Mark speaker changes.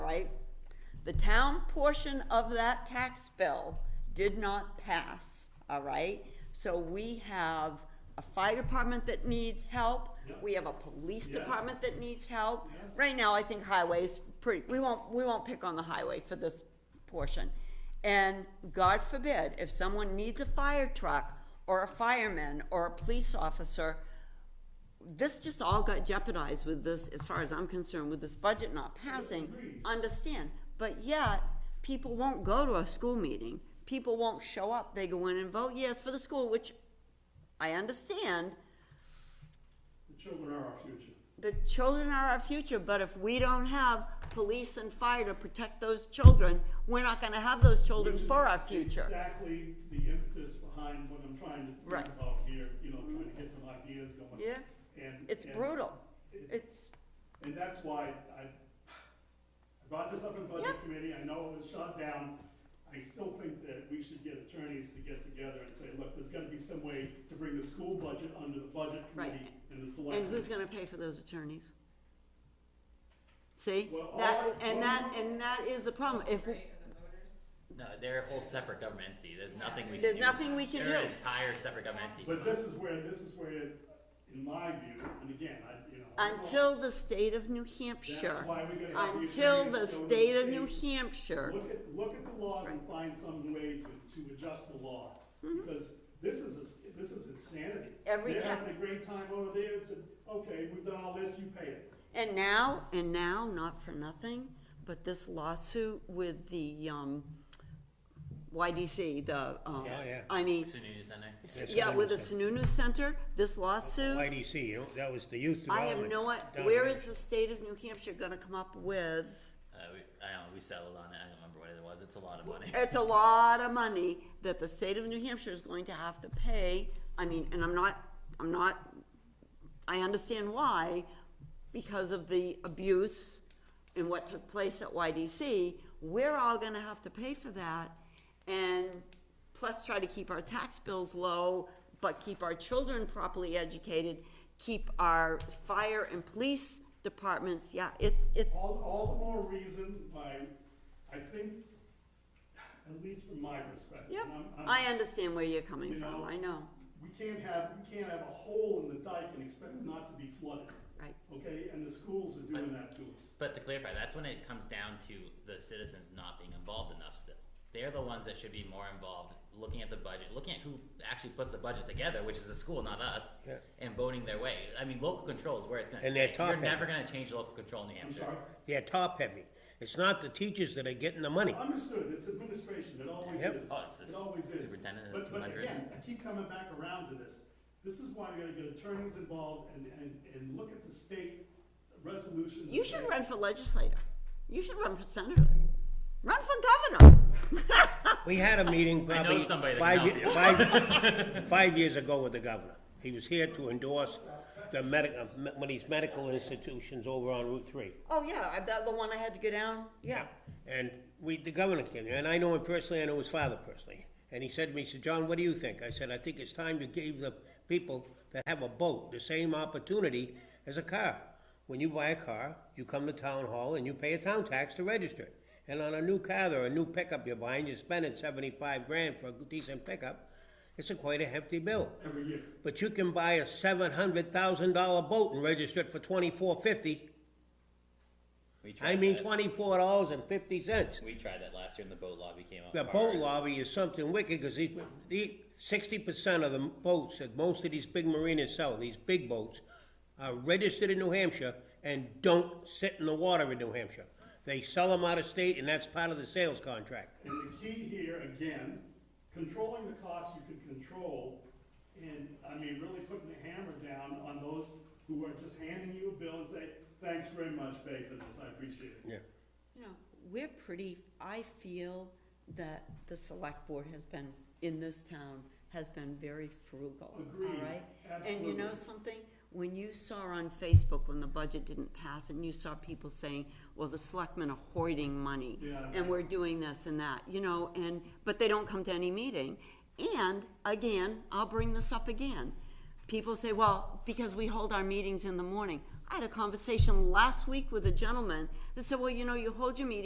Speaker 1: The town portion of that tax bill did not pass, all right? So we have a fire department that needs help. We have a police
Speaker 2: Yes.
Speaker 1: department that needs help.
Speaker 2: Yes.
Speaker 1: Right now, I think highway's pretty, we won't, we won't pick on the highway for this portion. And God forbid, if someone needs a fire truck or a fireman or a police officer, this just all got jeopardized with this, as far as I'm concerned, with this budget not passing. Understand, but yet, people won't go to a school meeting. People won't show up. They go in and vote yes for the school, which I understand.
Speaker 2: The children are our future.
Speaker 1: The children are our future, but if we don't have police and fire to protect those children, we're not gonna have those children
Speaker 2: Which is
Speaker 1: for our future.
Speaker 2: Exactly the impetus behind what I'm trying to
Speaker 1: Right.
Speaker 2: think about here, you know, trying to get some ideas going.
Speaker 1: Yeah,
Speaker 2: And.
Speaker 1: it's
Speaker 2: and-
Speaker 1: brutal.
Speaker 2: it-
Speaker 1: It's,
Speaker 2: And that's why I, I brought this up in budget
Speaker 1: Yeah.
Speaker 2: committee, I know it was shot down. I still think that we should get attorneys to get together and say, look, there's gotta be some way to bring the school budget under the budget
Speaker 1: Right.
Speaker 2: committee and the select.
Speaker 1: and who's gonna pay for those attorneys? See,
Speaker 2: Well, all
Speaker 1: that,
Speaker 2: I-
Speaker 1: and
Speaker 2: all
Speaker 1: that,
Speaker 2: I-
Speaker 1: and that is the problem. If,
Speaker 3: Right, or the voters?
Speaker 4: No, they're a whole separate government entity. There's nothing we can
Speaker 1: there's
Speaker 4: do.
Speaker 1: nothing we can
Speaker 4: they're an
Speaker 1: do.
Speaker 4: entire separate government entity.
Speaker 2: But this is where, this is where, in my view, and again, I, you know. I don't know.
Speaker 1: Until the state of New Hampshire,
Speaker 2: That's why we gotta have the
Speaker 1: until the
Speaker 2: attorneys go to
Speaker 1: state of New
Speaker 2: state.
Speaker 1: Hampshire,
Speaker 2: Look at, look at the laws and find some way to, to adjust the law, because this is, a- this is insanity.
Speaker 1: Mm-hmm. Every
Speaker 2: They're
Speaker 1: time-
Speaker 2: having a great time over there, it's a, okay, we've done all this, you pay it.
Speaker 1: and now, and now, not for nothing, but this lawsuit with the, um, YDC, the, um,
Speaker 5: Yeah. Oh, yeah.
Speaker 1: I mean,
Speaker 4: SUNY Center.
Speaker 1: s-
Speaker 5: That's
Speaker 1: yeah,
Speaker 5: what I
Speaker 1: with the
Speaker 5: was
Speaker 1: Sununu Center, this lawsuit,
Speaker 5: YDC, you know, that was the youth
Speaker 1: I
Speaker 5: development.
Speaker 1: have no, i-
Speaker 5: down
Speaker 1: where
Speaker 5: there.
Speaker 1: is the state of New Hampshire gonna come up with?
Speaker 4: Uh, we, I don't know. We settled on it. I don't remember what it was. It's a lot of money.
Speaker 1: It's a lot of money that the state of New Hampshire is going to have to pay, I mean, and I'm not, I'm not, I understand why, because of the abuse and what took place at YDC, we're all gonna have to pay for that, and plus try to keep our tax bills low, but keep our children properly educated, keep our fire and police departments, yeah, it's, it's,
Speaker 2: All, all the more reason why, I think, at least from my perspective.
Speaker 1: yep,
Speaker 2: and I'm- I'm-
Speaker 1: I understand where you're coming
Speaker 2: You
Speaker 1: from,
Speaker 2: know,
Speaker 1: I know,
Speaker 2: We can't have, we can't have a hole in the dike and expect it not to be flooded,
Speaker 1: right.
Speaker 2: okay? And the schools are doing that to us.
Speaker 4: But to clarify, that's when it comes down to the citizens not being involved enough still. They're the ones that should be more involved, looking at the budget, looking at who actually puts the budget together, which is the school, not us,
Speaker 5: Yeah.
Speaker 4: and voting their way. I mean, local control is where it's going to
Speaker 5: And
Speaker 4: stay.
Speaker 5: they're
Speaker 4: You're
Speaker 5: top-heavy.
Speaker 4: never going to change local control in New
Speaker 2: I'm
Speaker 4: Hampshire.
Speaker 2: sorry,
Speaker 5: They're top heavy. It's not the teachers that are getting the money.
Speaker 2: Understood, it's administration, it always
Speaker 5: Yep.
Speaker 2: is.
Speaker 4: Oh, it's the
Speaker 2: It always is.
Speaker 4: superintendent and
Speaker 2: But, but
Speaker 4: 200.
Speaker 2: again, I keep coming back around to this. This is why we gotta get attorneys involved and, and, and look at the state resolutions.
Speaker 1: You
Speaker 2: and
Speaker 1: should
Speaker 2: say,
Speaker 1: run for legislator. You should run for senator. Run for governor.
Speaker 5: We had a meeting
Speaker 4: I know
Speaker 5: probably
Speaker 4: somebody that
Speaker 5: five,
Speaker 4: can
Speaker 5: ye- five, five years ago with the governor. He was here to endorse the medic, uh, me- one of these medical institutions over on Route Three.
Speaker 1: Oh, yeah, I- that, the one I had to go down, yeah.
Speaker 5: And we, the governor came, and I know him personally, I know his father personally. And he said to me, he said, John, what do you think? I said, I think it's time to give the people that have a boat the same opportunity as a car. When you buy a car, you come to town hall and you pay a town tax to register it. And on a new car or a new pickup you're buying, you're spending seventy-five grand for a decent pickup. It's a quite a hefty bill.
Speaker 2: Every year.
Speaker 5: But you can buy a seven hundred thousand dollar boat and register it for twenty-four fifty.
Speaker 4: We tried
Speaker 5: I mean,
Speaker 4: that.
Speaker 5: twenty-four dollars and fifty cents.
Speaker 4: We tried that last year, and the boat lobby came up.
Speaker 5: The boat lobby is something wicked, because these, the, sixty percent of the boats that most of these big marinas sell, these big boats, are registered in New Hampshire and don't sit in the water in New Hampshire. They sell them out of state, and that's part of the sales contract.
Speaker 2: And the key here, again, controlling the costs you can control, and, I mean, really putting the hammer down on those who are just handing you a bill and say, thanks very much, Bay, for this, I appreciate it.
Speaker 5: Yeah.
Speaker 1: You know, we're pretty, I feel that the select board has been, in this town, has been very frugal, all
Speaker 2: Agreed,
Speaker 1: right? And you know
Speaker 2: absolutely.
Speaker 1: something? When you saw on Facebook when the budget didn't pass and you saw people saying, well, the selectmen are hoarding money.
Speaker 2: Yeah.
Speaker 1: And we're doing this and that, you know, and, but they don't come to any meeting. And again, I'll bring this up again. People say, well, because we hold our meetings in the morning. I had a conversation last week with a gentleman that said, well, you know, you hold your meeting